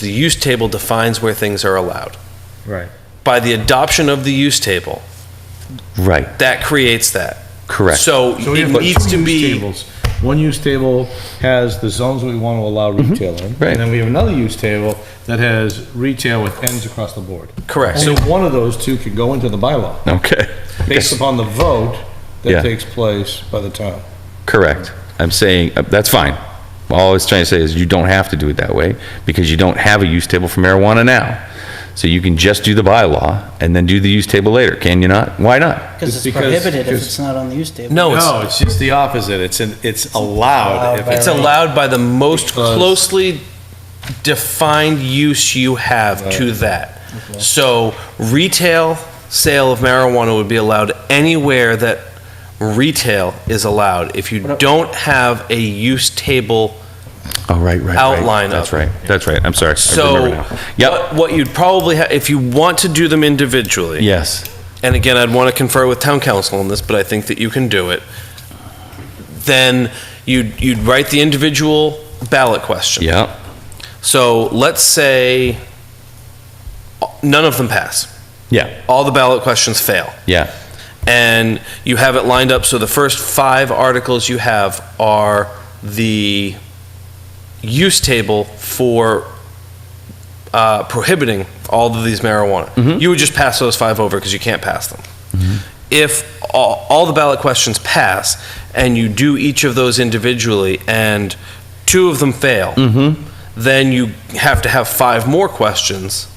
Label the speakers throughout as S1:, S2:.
S1: The use table defines where things are allowed.
S2: Right.
S1: By the adoption of the use table,
S3: Right,
S1: that creates that.
S3: correct.
S1: So
S2: So we
S1: it
S2: have two
S1: needs to
S2: use
S1: be,
S2: tables. One use table has the zones we want to allow retail in.
S3: Mm-hmm. right.
S2: And then we have another use table that has retail with ends across the board.
S1: correct.
S2: So
S1: So
S2: one of those two can go into the bylaw
S3: Okay,
S2: based upon the vote
S3: Yeah.
S2: that takes place by the town.
S3: correct. I'm saying, uh, that's fine. All I was trying to say is you don't have to do it that way because you don't have a use table for marijuana now. So you can just do the bylaw and then do the use table later, can you not? Why not?
S2: It's
S4: Because it's
S2: because-
S4: prohibited if
S2: because-
S4: it's not on the use table.
S2: Oh,
S1: No, it's-
S5: No, it's just the opposite. It's an, it's allowed.
S4: Allowed
S5: if
S4: by
S5: it's-
S1: it's allowed by the most closely defined use you have to that. So retail sale of marijuana would be allowed anywhere that retail is allowed. If you don't have a use table
S3: Oh, right, right, right.
S1: Outline
S3: That's
S1: of-
S3: right, that's right. I'm sorry. I remember
S1: So,
S3: now. Yep,
S1: what, what you'd probably have, if you want to do them individually,
S3: yes.
S1: and again, I'd want to confer with town council on this, but I think that you can do it, then you'd, you'd write the individual ballot question.
S3: Yep,
S1: So, let's say none of them pass,
S3: yeah,
S1: all the ballot questions fail,
S3: yeah,
S1: and you have it lined up so the first five articles you have are the use table for uh, prohibiting all of these marijuana. You would just pass those five over because you can't pass them. If all, all the ballot questions pass and you do each of those individually and two of them fail, then you have to have five more questions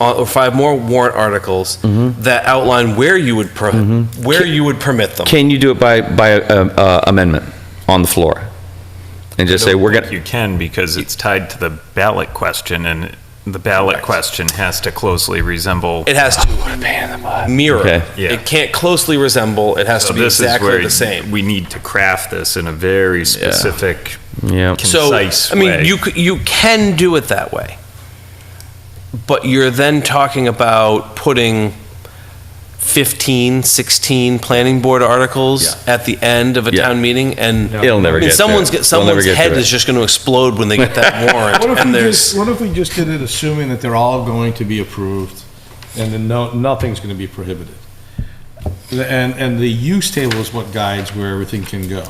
S1: uh, or five more warrant articles that outline where you would pro- where you would permit them.
S3: Can you do it by, by uh, uh, amendment on the floor? And just say, we're
S6: I don't
S3: gonna,
S6: think You can, because it's tied to the ballot question, and the ballot question has to closely resemble.
S1: It has to mirror.
S3: Okay.
S6: Yeah.
S1: It can't closely resemble. It has
S6: So
S1: to be
S6: this is
S1: exactly
S6: where
S1: the same.
S6: We need to craft this in a very specific,
S3: yeah,
S6: concise
S1: I mean,
S6: way.
S1: you c- you can do it that way, but you're then talking about putting 15, 16 planning board articles
S3: Yeah.
S1: at the end of a
S3: Yeah.
S1: town meeting, and
S3: It'll never
S1: I mean,
S3: get
S1: someone's
S3: there.
S1: get-
S3: We'll never
S1: someone's
S3: get
S1: head
S3: to it.
S1: is just going to explode when they get that warrant,
S2: What if
S1: and
S2: we
S1: there's
S2: just, what if we just did it assuming that they're all going to be approved and then no, nothing's gonna be prohibited? The- And, and the use table is what guides where everything can go,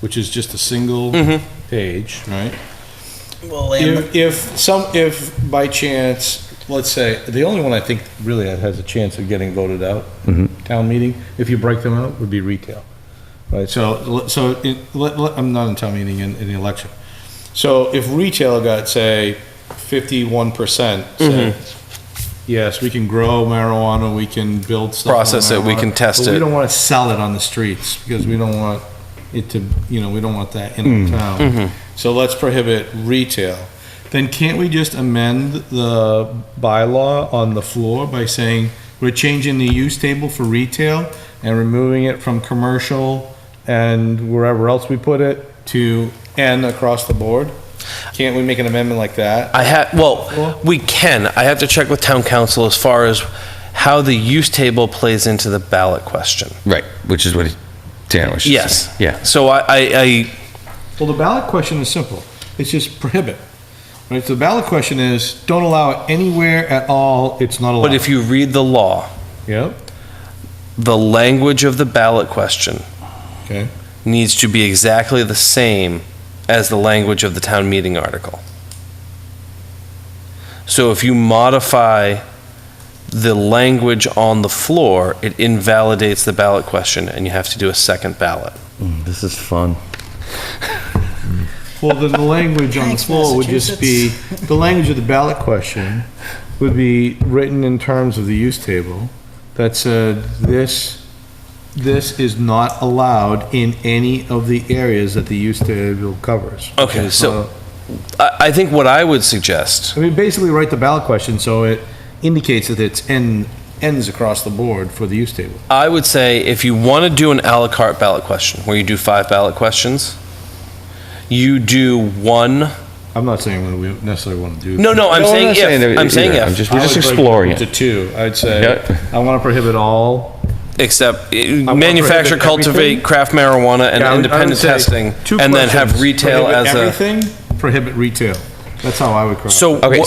S2: which is just a single
S1: Mm-hmm.
S2: page, right?
S4: Well, and the-
S2: If, if some, if by chance, let's say, the only one I think really that has a chance of getting voted out, town meeting, if you break them out, would be retail. Right, so, so, in- let- let- I'm not in town meeting, in, in the election. So if retail got, say, fifty-one percent, yes, we can grow marijuana, we can build stuff. on
S1: Mm-hmm. Process it, we
S2: marijuana,
S1: can test
S2: But
S1: it."
S2: we don't wanna sell it on the streets, because we don't want it to, you know, we don't want that in
S1: Mm.
S2: our
S1: Mm-hmm.
S2: town. So let's prohibit retail. Then can't we just amend the bylaw on the floor by saying we're changing the use table for retail and removing it from commercial and wherever else we put it to N across the board? Can't we make an amendment like that?
S1: I have, well, we can. I have to check with town council as far as how the use table plays into the ballot question.
S3: right, which is what he- Dan was just
S1: Yes.
S3: saying. Yeah,
S1: So I, I, I
S2: Well, the ballot question is simple. It's just prohibit. Right? So the ballot question is don't allow it anywhere at all. It's not allowed.
S1: But if you read the law,
S2: Yep.
S1: the language of the ballot question
S2: Okay.
S1: needs to be exactly the same as the language of the town meeting article. So if you modify the language on the floor, it invalidates the ballot question and you have to do a second ballot.
S3: this is fun.
S2: Well, then the language on the
S4: Thanks,
S2: floor would just be, the language of the ballot question would be written in terms of the use table that said, this, this is not allowed in any of the areas that the use table covers. Uh,
S1: Okay, so I, I think what I would suggest,
S2: I mean, basically write the ballot question so it indicates that it's N, ends across the board for the use table.
S1: I would say if you want to do an à la carte ballot question, where you do five ballot questions, you do one
S2: I'm not saying that we necessarily want to do.
S1: No, no, I'm
S3: No, I'm
S1: saying
S3: not saying
S1: if.
S3: that
S1: I'm saying
S3: either. I'm
S1: if,
S3: just- we're just exploring
S2: To
S3: it.
S2: two, I'd say,
S3: Yeah.
S2: I want to prohibit all.
S1: except uh,
S2: wanna
S1: manufacture,
S2: prohibit
S1: cultivate,
S2: everything.
S1: craft marijuana and
S2: Yeah, I would- I would
S1: independent
S2: say
S1: testing,
S2: two
S1: and then have
S2: questions.
S1: retail
S2: Prohibit
S1: as a.
S2: Everything, prohibit retail. That's how I would craft it.
S1: So
S3: Okay,
S1: what-